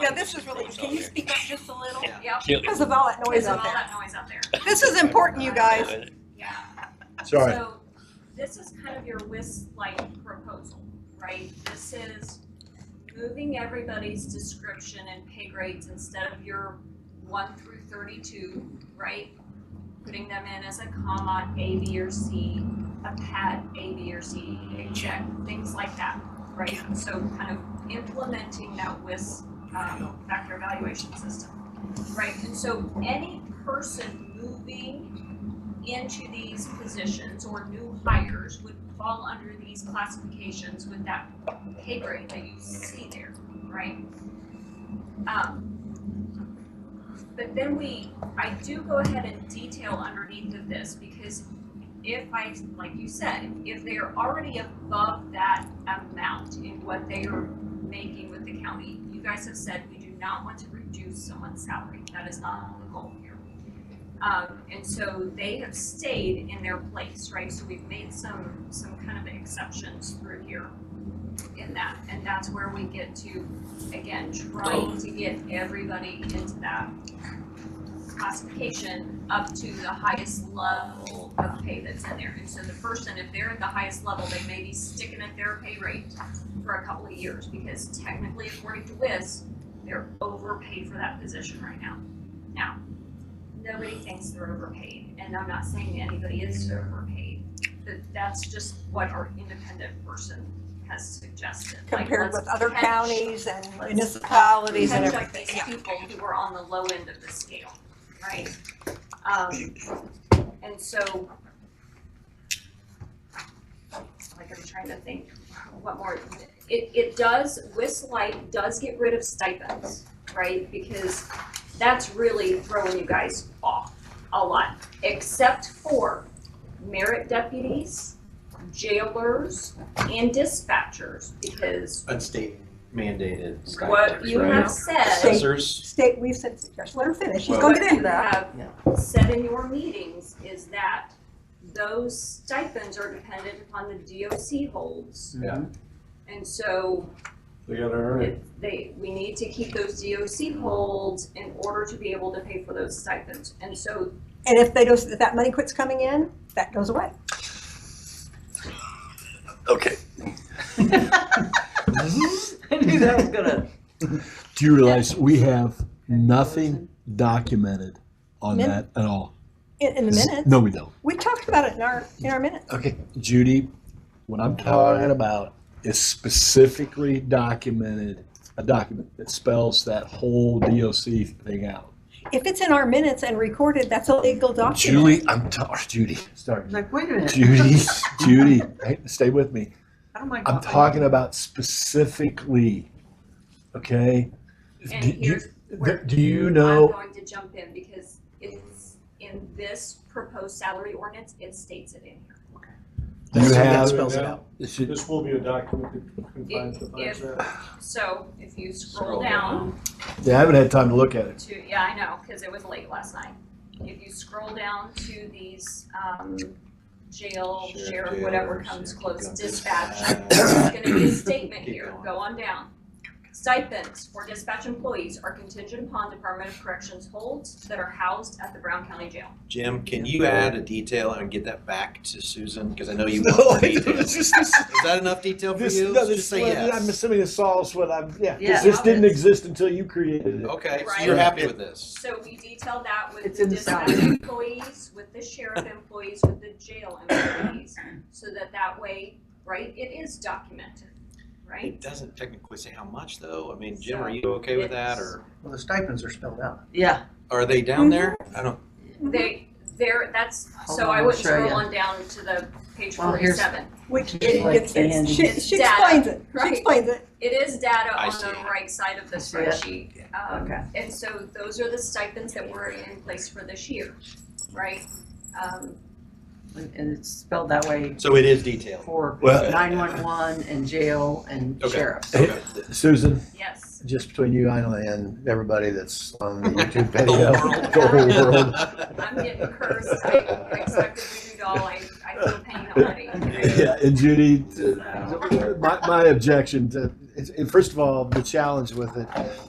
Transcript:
Yeah, this is really, can you speak up just a little? Yep, Kill Because of all that noise because of out all there. that noise out there. This is important, you guys. it. Yeah. Sorry. So this is kind of your WIS-like proposal, right? This is moving everybody's description and pay grades instead of your one through thirty-two, right? Putting them in as a comma, A, B, or C, a pad, A, B, or C, a check, things like that, right? So kind of implementing that WIS, um, factor evaluation system, right? And so any person moving into these positions or new hires would fall under these classifications with that pay grade that you see there, right? Um, but then we, I do go ahead and detail underneath of this because if I, like you said, if they are already above that amount in what they are making with the county, you guys have said we do not want to reduce someone's salary. That is not the goal here. Um, and so they have stayed in their place, right? So we've made some, some kind of exceptions through here in that. And that's where we get to, again, trying to get everybody into that classification up to the highest level of pay that's in there. And so the person, if they're at the highest level, they may be sticking at their pay rate for a couple of years because technically according to WIS, they're overpaid for that position right now. Now, nobody thinks they're overpaid, and I'm not saying anybody is overpaid, but that's just what our independent person has suggested. Like, Compared let's with other catch- counties and municipalities and catch up everything. These Yeah. people who are on the low end of the scale, right? Um, and so. Like I'm trying to think, what more, it, it does, WIS light does get rid of stipends, right? Because that's really throwing you guys off a lot, except for merit deputies, jailers, and dispatchers, because And state mandated stipends, what you right? have said, Assessors, State, we've said, just let her finish. She's Well- gonna what get into you that. have said in your meetings is that those stipends are dependent upon the DOC holds. Yeah. And so they gotta earn it. It- They, we need to keep those DOC holds in order to be able to pay for those stipends. And so, And if they don't, if that money quits coming in, that goes away. Okay. I knew that was gonna. Do you realize we have nothing documented on Min- that at all? In, in the Z- minutes, No, we don't. we talked about it in our, in our minutes. Okay, Judy, what I'm talking about is specifically documented, a document that spells that whole DOC thing out. If it's in our minutes and recorded, that's a legal document. Julie, I'm, ta- Judy, Sorry. It's like, wait a minute. Judy, Judy, hey, stay with me. I don't mind I'm coffee. talking about specifically, okay? and Do you- here's where do you I'm know? going to jump in because it's in this proposed salary ordinance, it states it in here. You That's- that have- spells it out. It should- This will be a document that confines the If- fines that. So if you Scroll scroll down Yeah, I haven't had time to look at it. to, yeah, I know, because it was late last night. If you scroll down to these, um, jail, Sheriff, sheriff, whatever jailers, comes yeah, close, keep going. dispatch, Uh, There's gonna be a statement Keep here, going. go on down. Stipends for dispatch employees are contingent upon Department of Corrections holds that are housed at the Brown County Jail. Jim, can you add a detail and get that back to Susan? Because I know you want No, more detail. it's Is just- this- that enough detail for this- you? no, Just this- say well, I'm yes. assuming this solves what I'm, yeah, 'cause Yeah. this didn't exist until you created it. Okay, so Right. you're happy with this? So we detail that with It's the in the dispatch salary. employees, with the sheriff employees, with the jail employees, so that that way, right, it is documented, right? It doesn't technically say how much though. I mean, Jim, are you okay with that or Well, the stipends are spelled out. Yeah. are they down there? Mm-hmm. I don't, They, there, that's, Hold so on, I I'll wouldn't show scroll you. on down to the page Well, here's- forty-seven. Which, it, Just like it's, it's- she, Andy. she Data, explains it, she right. explains it. It is data I on see the it. right side of the see it. spreadsheet. Um, Okay. And so those are the stipends that were in place for this year, right? Um, And it's spelled that way so it is detailed. for Well- nine-one-one and jail and Okay. sheriffs. Okay. Susan, Yes. Just between you and I and everybody that's on the YouTube The video. world. The whole world. I'm getting cursed. I I expected to do doll. I, I feel pain already. yeah, and Judy, uh, my, my objection to, is- first of all, the challenge with it